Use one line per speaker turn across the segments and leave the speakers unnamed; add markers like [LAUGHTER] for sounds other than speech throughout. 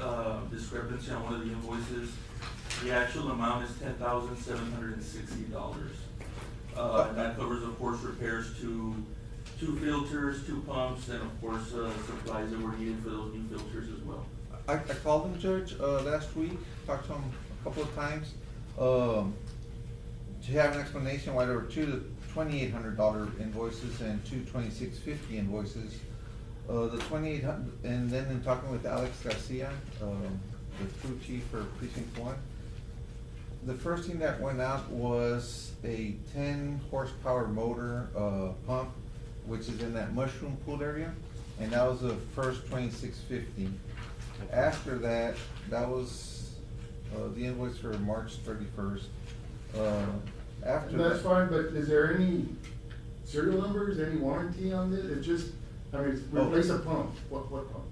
uh, discrepancy on one of the invoices. The actual amount is ten thousand seven hundred and sixty dollars. Uh, and that covers, of course, repairs to two filters, two pumps, and of course, uh, supplies that were needed for those new filters as well.
I, I called him, Judge, uh, last week, talked to him a couple of times, um, to have an explanation why there were two twenty-eight hundred dollar invoices and two twenty-six fifty invoices. Uh, the twenty-eight hundred, and then in talking with Alex Garcia, um, the crew chief for precinct one, the first thing that went out was a ten horsepower motor, uh, pump, which is in that mushroom pool area, and that was the first twenty-six fifty. After that, that was, uh, the invoice for March thirty-first, uh, after that.
That's fine, but is there any serial numbers, any warranty on this? It's just, I mean, it's-
Oh.
replace a pump, what, what pump?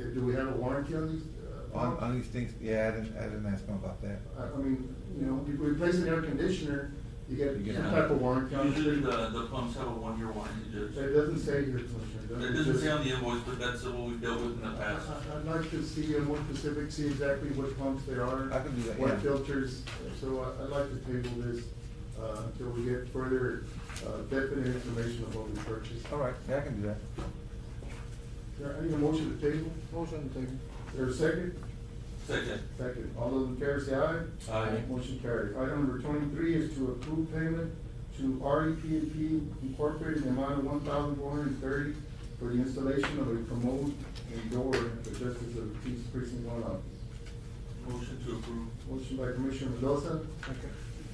Uh, Do we have a warranty on these? uh,
On,
pumps?
on these things, yeah, I didn't, I didn't ask him about that.
I, I mean, you know, if you replace an air conditioner, you get
You get
some
a-
type of warranty on it.
Usually the, the pumps have a one-year warranty, Judge.
It doesn't say here, Commissioner.
It doesn't say on the invoice, but that's what we've dealt with in the
I-
past.
I- I'd like to see a more specific, see exactly what pumps there are.
I can do that, yeah.
What filters, so I- I'd like to table this uh, until we get further uh, definite information of what we purchased.
All right, yeah, I can do that.
There- I need a motion to table.
Motion taken.
Is there a second?
Second.
Second. All those in favor say aye.
Aye.
Motion carried. Item number twenty-three is to approve payment to REP and P Incorporated in the amount of one thousand four hundred and thirty for the installation of a commode and door at the Justice of the Peace Precinct One office.
Motion to approve.
Motion by Commissioner Mendoza,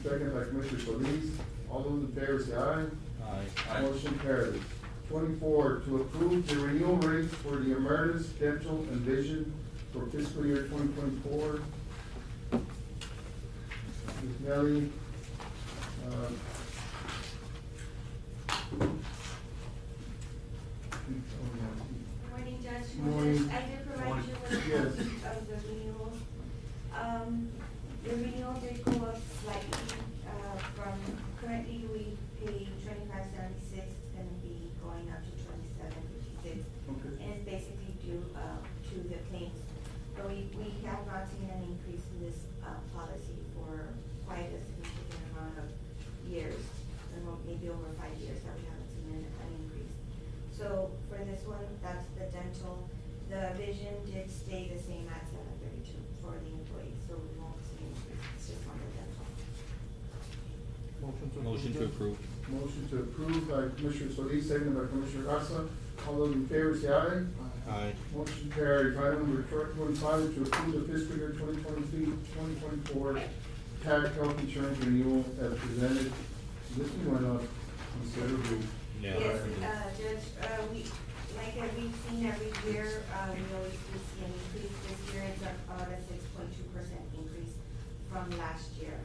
second by Commissioner Solis. All those in favor say aye.
Aye.
Motion carries. Twenty-four, to approve the renewal rates for the emeritus dental and vision for fiscal year twenty twenty-four. Ms. Nelly, uh,
Good morning, Judge.
Good morning.
I did provide
Morning.
you with
Yes.
copies of the renewals. Um, the renewal did go up slightly, uh, from currently we pay twenty-five seventy-six, it's gonna be going up to twenty-seven fifty-six.
Okay.
And it's basically due, uh, to the claims. But we, we have not seen an increase in this, uh, policy for quite a significant amount of years. And mo- maybe over five years that we haven't seen an, an increase. So for this one, that's the dental, the vision did stay the same at seven thirty-two for the employees, so we won't see an increase, it's just on the dental.
Motion to approve.
Motion to approve by Commissioner Solis, second by Commissioner Garza. All those in favor say aye.
Aye.
Motion carries. Item number tw- twenty-five, to approve the fiscal year 2023-2024 tag health insurance renewal as presented. This one went up considerably.
Yeah.
Yes, uh, Judge, uh, we, like uh, we've seen every year, uh, we always do see an increase. This year it's up about a six point two percent increase from last year,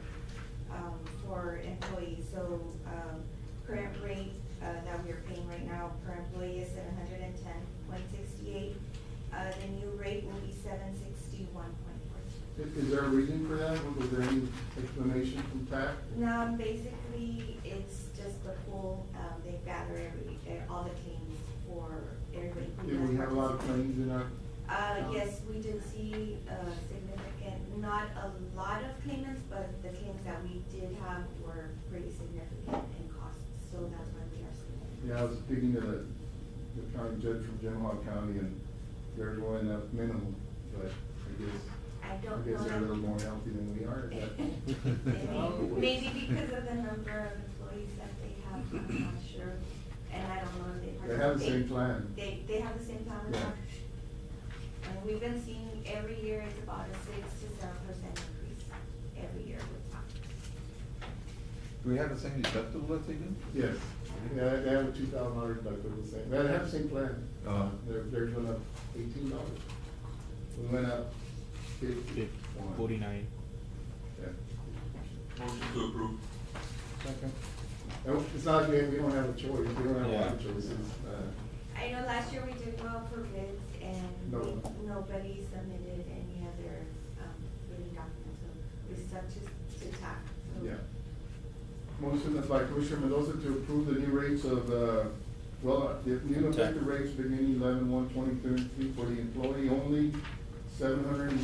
um, for employees. So, um, current rate, uh, that we are paying right now per employee is seven hundred and ten point sixty-eight. Uh, the new rate will be seven sixty-one point fourteen.
I- Is there a reason for that? Was there any explanation from TAC?
No, basically, it's just the pool, um, they gather every, eh, all the claims for everybody who
Did we
does
have a lot of
participate.
claims in our?
Uh,
Um,
yes, we did see, uh, significant, not a lot of claimants, but the claims that we did have were pretty significant in cost, so that's why we are seeing it.
Yeah, I was speaking to the, the county judge from Genoa County and they're going up minimal, but I guess,
I
I
don't know.
guess they're a
that-
little
[LAUGHS]
more healthy than we are, but.
Maybe- Maybe because of the number of employees that they have, I'm not sure, and I don't know if they
They
participate.
have the same plan.
They, they have the same time as
Yeah.
us. And we've been seeing every year it's about a six to seven percent increase every year with time.
Do we have the same deductible that they do?
Yes, yeah, they have a two thousand dollar deductible, same, they have the same plan.
Uh-huh.
They're, they're going up eighteen dollars. We went up fifty.
Forty-nine.
Yeah.
Motion to approve.
And It's not, we, we don't have a choice, we don't have a lot of
Yeah.
choices, uh,
I know last year we did well for bids and
No.
we- nobody submitted any other, um, bidding documents, so we stuck to, to TAC, so.
yeah. Motion is by Commissioner Mendoza to approve the new rates of, uh, well, the new effective rates beginning eleven one twenty twenty-three for the employee only, seven hundred and